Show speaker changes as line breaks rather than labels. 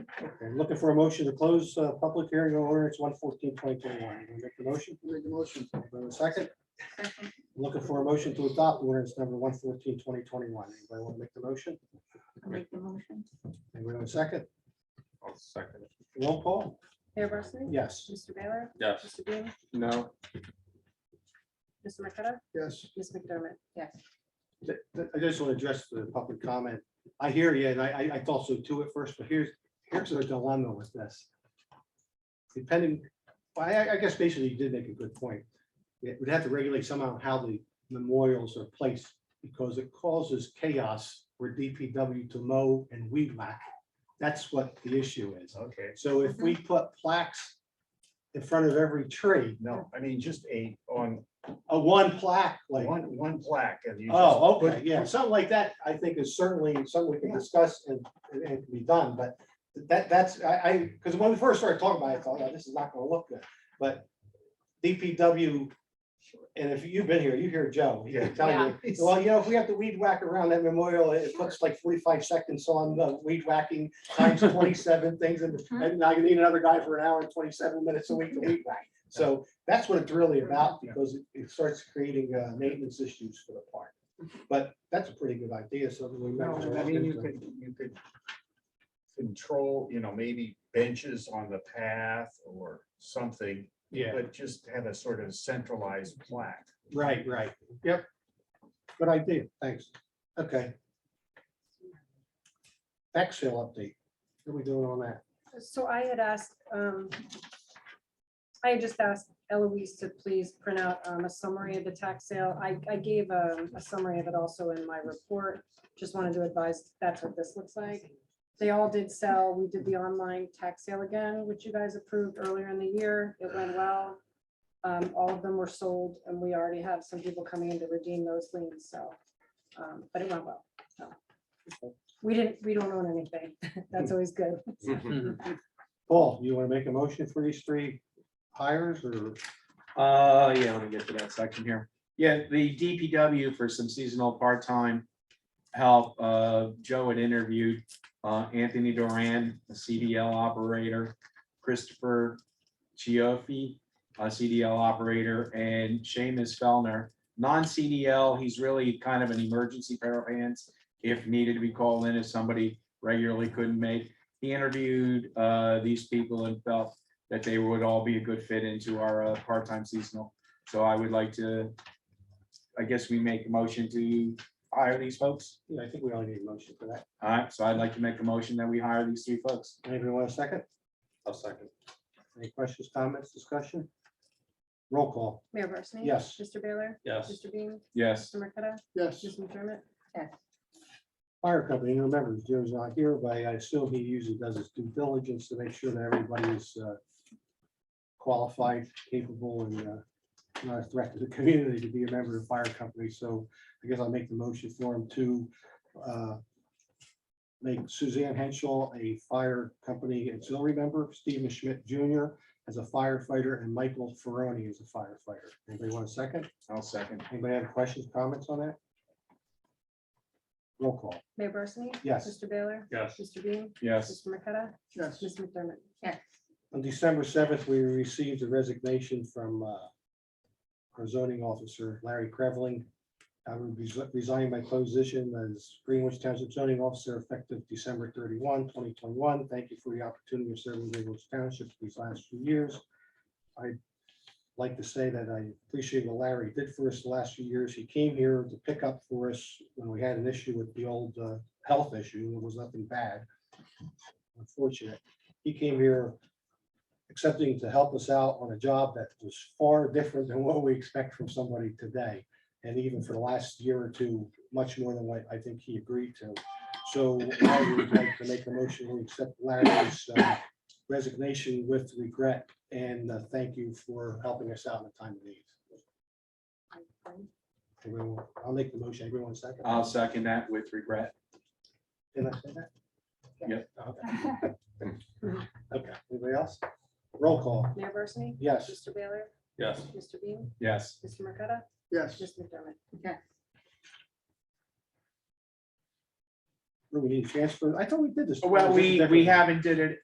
Okay, Looking for a motion to close uh, public hearing on ordinance one fourteen twenty twenty-one. Make the motion.
Make the motion.
Anybody want a Second, looking for a motion to adopt ordinance number 114 2021. Anybody want to make the motion?
I'll make the motion.
Anybody want a second?
I'll second. it.
Roll call?
Mayor Barsney?
Yes.
Mr. Baylor?
Yes.
Mr. Bean?
No.
Mr. McCutcheon?
Yes.
Ms. McDermott? Yes.
Th- th- I just want to address the public comment. I hear you, and I, I- I thought so too at first, but here's, here's our dilemma with this. Depending, I, I- I guess basically you did make a good point. It would have to regulate somehow how the memorials are placed, because it causes chaos for DPW to mow and weed whack. That's what the issue is.
Okay,
So if we put plaques in front of every tree,
no, I mean, just a, on
a one plaque, like.
one, one plaque and you. just
Oh,
put-
okay, yeah, something like that, I think is certainly something we can discuss and, and and can be done, but that, that's, I, I, because when we first started talking about it, I thought, "Oh, this is not gonna look good, but DPW, and if you've been here, you hear Joe, he can tell you, well, you know, if we have to weed whack around that memorial, it puts like forty-five seconds on the weed whacking times twenty-seven things, and and I need another guy for an hour and twenty-seven minutes a week to weed whack. So that's what it's really about, because it- it starts creating uh, maintenance issues for the park. But that's a pretty good idea, something we.
No, I mean, you
mentioned.
could, you could control, you know, maybe benches on the path or something,
Yeah,
but just have a sort of centralized plaque.
right, right, yep. Good idea, thanks. Okay. Tax sale update. What are we doing on that?
So I had asked, um, I had just asked Eloise to please print out um, a summary of the tax sale. I, I gave um, a summary of it also in my report. Just wanted to advise, that's what this looks like. They all did sell. We did the online tax sale again, which you guys approved earlier in the year. It went well. Um, All of them were sold and we already have some people coming in to redeem those liens, so, um, but it went well. so. We didn't, we don't own anything. That's always good.
Paul, you want to make a motion for these three hires or?
Uh, yeah, let me get to that section here. Yeah, the DPW for some seasonal part-time help, uh, Joe had interviewed, uh, Anthony Duran, a CDL operator, Christopher Chioffi, a CDL operator, and Seamus Fellner, non-CDL, he's really kind of an emergency pair of hands. If needed, we call in if somebody regularly couldn't make. He interviewed, uh, these people and felt that they would all be a good fit into our uh, part-time seasonal. So I would like to, I guess we make a motion to hire these folks.
Yeah, I think we all need a motion for that.
All right, so I'd like to make a motion that we hire these three folks.
Anybody want a second?
I'll second.
Any questions, comments, discussion? Roll call,
Mayor Barsney?
Yes.
Mr. Baylor?
Yes.
Mr. Bean?
Yes,
Mr. Marqueta?
Yes.
Mr. McDermott?
fire company, and remember, Joe's not here, but I assume he usually does his due diligence to make sure that everybody is uh, qualified, capable, and uh, not a threat to the community to be a member of the fire company, so I guess I'll make the motion for him to uh, make Suzanne Henschel a fire company auxiliary member, Steven Schmidt Jr. as a firefighter, and Michael Ferroni as a firefighter. Anybody want a second?
I'll second.
Anybody have questions, comments on that? Roll call,
Mayor Barsney?
yes.
Mr. Baylor?
Yes.
Mr. Bean?
Yes,
Mr. Marqueta?
Yes.
Ms. McDermott?
Yes.
On December seventh, we received a resignation from uh, our zoning officer, Larry Creveling. I will be resigning my position as Greenwich Township zoning officer effective December 31, 2021. Thank you for the opportunity of serving Greenwich Township these last few years. I'd like to say that I appreciate what Larry did for us the last few years. He came here to pick up for us when we had an issue with the old uh, health issue. It was nothing bad. Unfortunate. He came here accepting to help us out on a job that was far different than what we expect from somebody today. And even for the last year or two, much more than what I think he agreed to. So I would like to make a motion to accept Larry's uh, resignation with regret and uh, thank you for helping us out in a time of need. Everyone- I'll make the motion. Everyone second.
I'll second that with regret.
Did I say that? Oh,
Yep.
Okay. Okay, anybody else? Roll call.
Mayor Barsney?
Yes.
Mr. Baylor?
Yes.
Mr. Bean?
Yes,
Mr. Marqueta?
Yes.
Ms. McDermott?
Yes.
We need transfer. I thought we did this.
well, we, we haven't did it